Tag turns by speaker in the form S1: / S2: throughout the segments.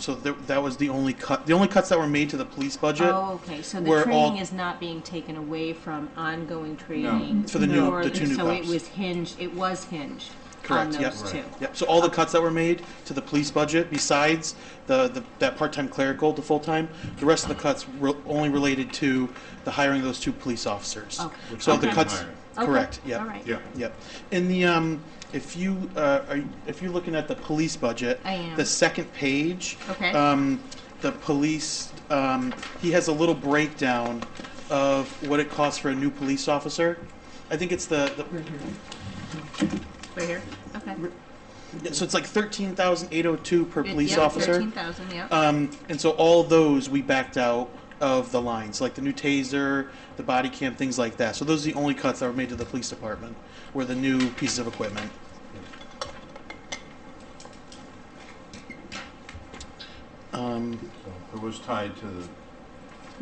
S1: So there, that was the only cut. The only cuts that were made to the police budget.
S2: Oh, okay, so the
S1: where
S2: training
S1: all-
S2: is not being taken away from ongoing training?
S1: For the new-
S2: or-
S1: the two new
S2: So it
S1: cops.
S2: was hinged, it was hinged on
S1: Correct. Yep.
S2: those two?
S1: Yep. So all the cuts that were made to the police budget, besides the, the that part-time clerical to full-time, the rest of the cuts re- only related to the hiring of those two police officers.
S2: Okay.
S3: Which
S1: So
S3: we
S1: the
S3: didn't
S1: cuts.
S3: hire.
S2: Okay,
S1: Correct. Yep.
S2: All right.
S3: Yeah.
S1: Yep. In the um, if you uh, are, you- if you're looking at the police budget,
S2: I am.
S1: the second page.
S2: Okay.
S1: Um, the police. Um, he has a little breakdown of what it costs for a new police officer. I think it's the, the
S2: Right here? Okay.
S1: Yeah, so it's like thirteen thousand eight hundred two per police officer.
S2: Thirteen thousand, yeah.
S1: Um, and so all those we backed out of the lines, like the new taser, the body cam, things like that. So those are the only cuts that were made to the police department, were the new pieces of equipment. Um,
S3: So It was tied to the,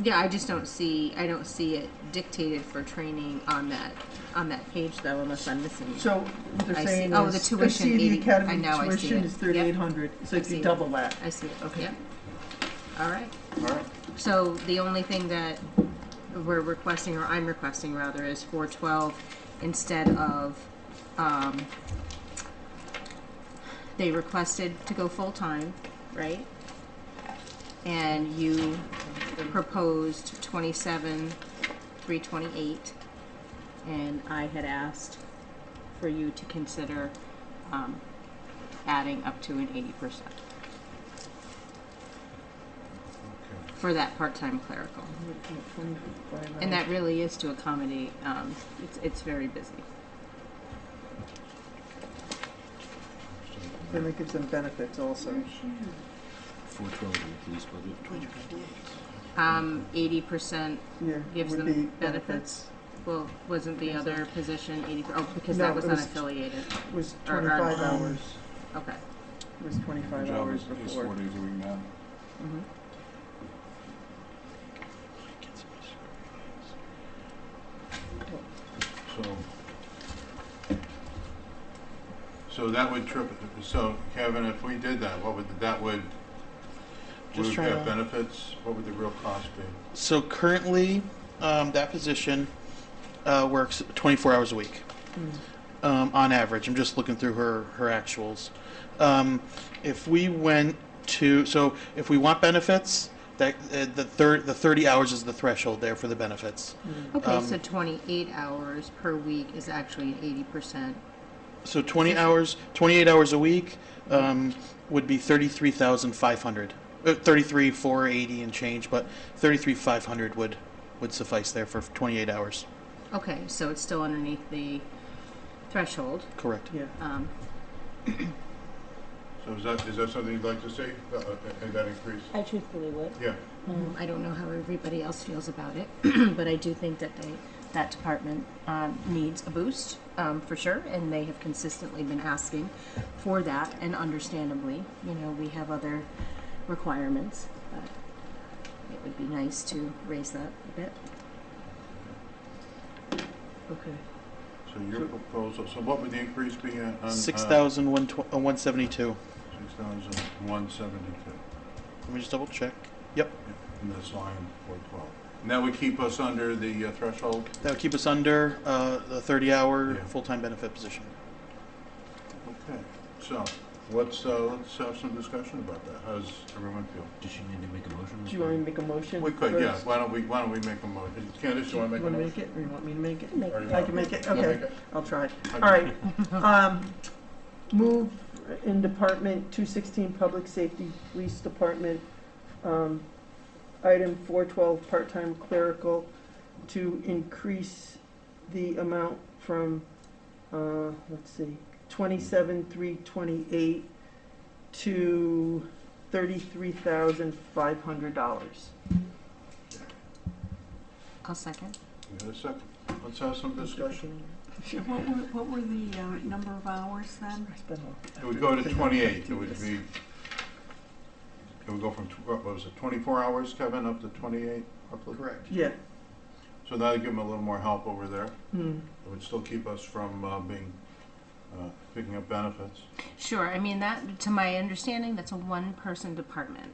S2: Yeah, I just don't see, I don't see it dictated for training on that, on that page though, unless I'm missing it.
S4: So what
S2: I
S4: they're
S2: see.
S4: saying
S2: Oh, the
S4: is, I
S2: tuition,
S4: see the
S2: 80 I
S4: academy
S2: know, I see
S4: tuition
S2: it.
S4: is
S2: Yep.
S4: thirty-eight hundred, so
S2: I
S4: if
S2: see
S4: you
S2: it.
S4: double that.
S2: I see it,
S4: Okay.
S2: yep. All right.
S3: all right,
S2: So the only thing that we're requesting, or I'm requesting rather, is four twelve instead of, um, they requested to go full-time, right? And you proposed twenty-seven, three twenty-eight. And I had asked for you to consider, um, adding up to an eighty percent
S3: okay.
S2: for that part-time clerical. And that really is to accommodate, um, it's, it's very busy.
S4: Then it gives them benefits also.
S5: Four twelve in the police budget.
S2: Um, eighty percent,
S4: Yeah,
S2: Gives
S4: would
S2: them
S4: be
S2: benefits?
S4: benefits.
S2: well, wasn't the other position eighty, oh, because
S4: No,
S2: that was
S4: it was-
S2: unaffiliated,
S4: Was
S2: Or- or- um,
S4: twenty-five hours,
S2: okay.
S4: was twenty-five
S3: Job
S4: hours
S3: is, is four
S4: before. Mm-hmm.
S3: days a week now.
S2: Mhm.
S3: So, so that would trip, so Kevin, if we did that, what would, that would, we
S1: Just
S3: would
S1: trying
S3: have
S1: to-
S3: benefits, what would the real cost be?
S1: so currently, um, that position, uh, works twenty-four hours a week. um, on average. I'm just looking through her her actuals. Um, if we went to so if we want benefits, that uh, the third the 30 hours is the threshold there for the benefits.
S2: Okay,
S1: Um,
S2: so twenty-eight hours per week is actually an eighty percent,
S1: So 20 hours, 28 hours a week um, would be 33,500. Uh, 33 480 and change, but 33 500 would would suffice there for 28 hours.
S2: okay, so it's still underneath the threshold,
S1: Correct.
S4: Yeah,
S2: um,
S3: So is that, is that something you'd like to see, that, uh, uh, that increase?
S2: I truthfully would.
S3: Yeah,
S2: Um, I don't know how everybody else feels about it, but I do think that they, that department um, needs a boost um, for sure, and they have consistently been asking for that, and understandably, you know, we have other requirements, but it would be nice to raise that a bit.
S4: okay.
S3: so your proposal, so what would the increase be on? on, uh,
S1: uh, 6,172.
S3: 6,172.
S1: Let me just double check. Yep.
S3: in this line four twelve. And that would keep us under the uh, threshold?
S1: That would keep us under uh, the 30 hour
S3: Yeah.
S1: full time benefit position.
S3: Okay. So, let's, uh, let's have some discussion about that. How does everyone feel?
S5: Does she need to make a motion?
S4: Do you want me to make a motion?
S3: We could, yeah,
S4: first?
S3: why don't we, why don't we make a motion? Candace, you wanna make a
S4: You wanna
S3: motion?
S4: make it, or you want me to make it?
S2: Make
S3: Or you
S4: I
S3: want-
S4: can make it,
S3: wanna
S4: okay,
S3: make it?
S4: I'll try.
S3: Okay.
S4: All right, um, move in Department two sixteen, Public Safety, Police Department, um, item four twelve, part-time clerical, to increase the amount from, uh, let's see, twenty-seven, three twenty-eight to thirty-three thousand five hundred dollars.
S2: I'll second.
S3: We got a second. Let's have some discussion.
S6: Sure, What were, what were the uh, number of hours then?
S3: It would go to twenty-eight, it would be, it would go from, tw- what was it, twenty-four hours, Kevin, up to twenty-eight?
S1: Correct.
S4: Yeah,
S3: So that'd give them a little more help over there.
S4: hmm,
S3: It would still keep us from uh, being uh, picking up benefits.
S2: Sure, I mean, that, to my understanding, that's a one-person department.